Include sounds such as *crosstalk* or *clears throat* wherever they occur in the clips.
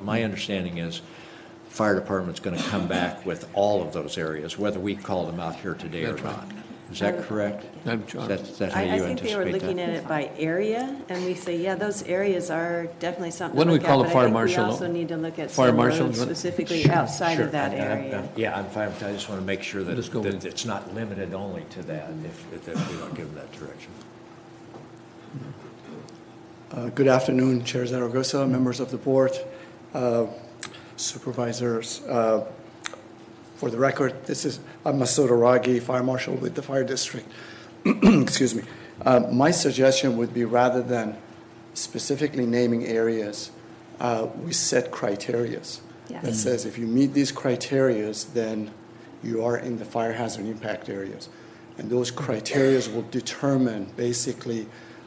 my understanding is fire department's going to come back with all of those areas, whether we call them out here today or That's right. not. Is that correct? I'm sure. That's, that's how you I, I think they were anticipate looking that? at it by area, and we say, yeah, those areas are definitely something Why to don't we look at. call the but I fire think marshal? We also need to look at Fire some marshal, roads you want- specifically Sure, outside Sure. of that I'm- I'm- area. Yeah, I'm fine, with that. I just want to make sure that, Just go that with- it's not limited only to that, if, if that we don't give them that direction. Uh, Good afternoon, Chair Zaragoza, members of the board, uh, supervisors. Uh, For the record, this is, I'm Masood Aragi, Fire Marshal with the Fire District. *clears throat* Excuse me. Uh, My suggestion would be rather than specifically naming areas, uh, we set criterias. That Yes. says if you meet these criterias, then you are in the fire hazard impact areas. And those criterias will determine basically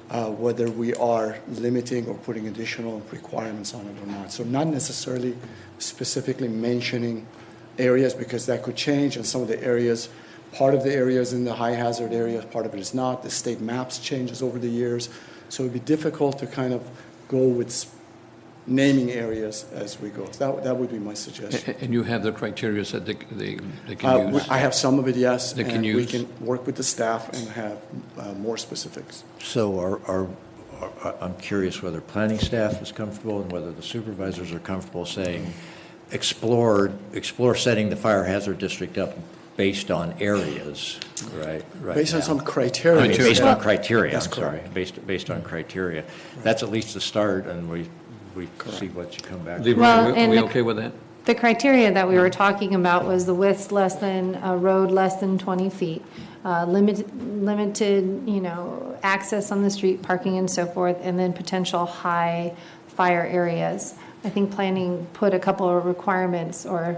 uh, whether we are limiting or putting additional requirements on it or not. So not necessarily specifically mentioning areas because that could change and some of the areas, part of the areas in the high hazard areas, part of it is not. The state maps changes over the years. So it'd be difficult to kind of go with s- naming areas as we go. That, that would be my A- suggestion. a- And you have the criteria that they, they they Eh, Uh, can we- use? I have some of it, yes. They can and use. We can work with the staff and have uh, more specifics. So are, are, are- I'm curious whether planning staff is comfortable and whether the supervisors are comfortable saying, explore, explore setting the fire hazard district up based on areas, right? right Based on now. some I criteria. mean, Based that- on criteria, I'm That's sorry, correct. based, based on criteria. That's at least the start, and we, we see what you come back with. Leroy, Well, are we- are and we the- okay with that? The criteria that we were talking about was the width's less than, a road less than 20 feet, uh, limit- limited, you know, access on the street, parking and so forth, and then potential high fire areas. I think planning put a couple of requirements or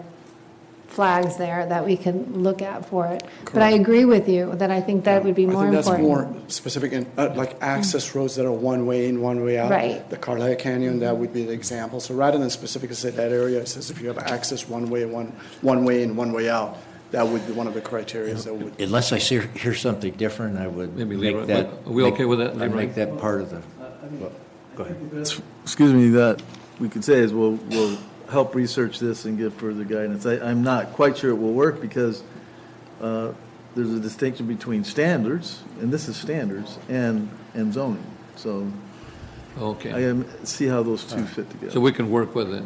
flags there that we can look at for it. But I agree with you that I think that would be more I think important. Mm. that's more specific, and uh, like access roads that are one way in, one way out. Right. The Carlisle Canyon, that would be the example. So rather than specifically say that area, it says if you have access one way, one, one way in, one way out, that would be one of the criteria that would. Unless I see, hear something different, I would Maybe Leroy- make that. are we okay with that, I'd Leroy? make that part of the, well, go ahead. That's- Excuse me, that we could say is we'll, we'll help research this and give further guidance. I, I'm not quite sure it will work because uh, there's a distinction between standards, and this is standards, and, and zoning. So I uh, Okay. am, see how those two fit So together. we can work with it.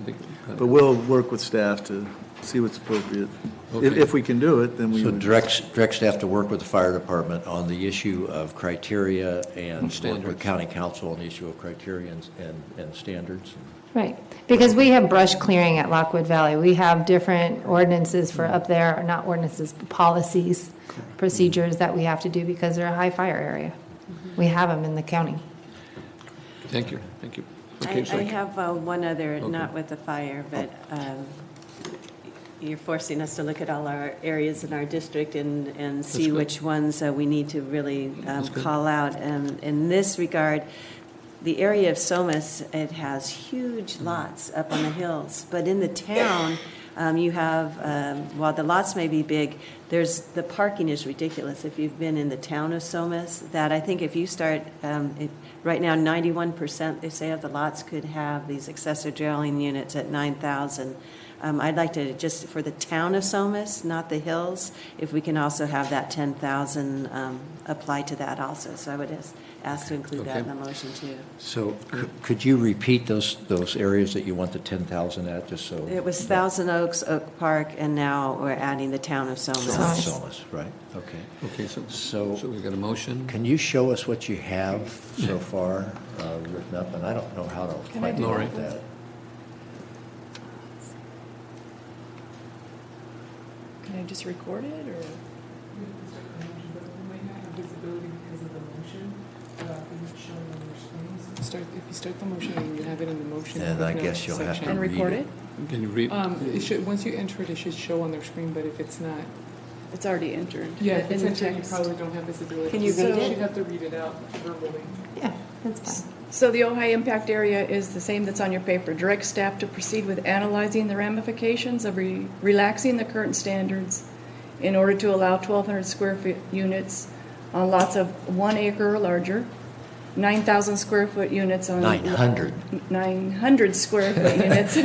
But we'll work with staff to see what's appropriate. If, Okay. if we can do it, then we So would. direct, direct staff to work with the fire department on the issue of criteria and work with standards. county council on the issue of criteria and, and- and standards. Right, because we have brush clearing at Lockwood Valley. We have different ordinances for up there, or not ordinances, but policies, procedures that we have to do because they're a high fire area. We have them in the county. Thank you, thank you. I, Okay, so- I have uh, one other, Okay. Oh. not with the fire, but um, you're forcing us to look at all our areas in our district and, and see good. which ones uh, we need to really um, That's good. call out. And in this regard, the area of Somas, it has huge lots up on the hills, but in the town, um, you have, um, while the lots may be big, there's, the parking is ridiculous. If you've been in the town of Somas, that I think if you start, um, it- right now, 91%, they say of the lots could have these accessory dwelling units at 9,000. Um, I'd like to, just for the town of Somas, not the hills, if we can also have that 10,000 um, apply to that also. So I would ask- ask to include that in the motion too. So c- could you repeat those, those areas that you want the 10,000 at, just so? It was Thousand Oaks, Oak Park, and now we're adding the town of Somas. Somas. Solis, right, okay. Okay, so, So- so we've got a motion? Can you show us what you have so far uh, written up? And I don't know how to quite do look at that? that. Can I just record it, or? Start, if you start the motion, you have it in the motion. Then I footnote guess you'll have to section. And read record it. Can you read? Um, it should, once you enter it, it should show on their screen, but if it's not, It's already entered. yeah, if it's in the entered, you text. probably don't have visibility. Can you read So it? You'd have to read it out verbally. Yeah, that's fine. So the Ojai impact area is the same that's on your paper. Direct staff to proceed with analyzing the ramifications of re- relaxing the current standards in order to allow 1,200 square foot units on lots of one acre or larger, 9,000 square foot units on. 900. *laughs* 900 square foot units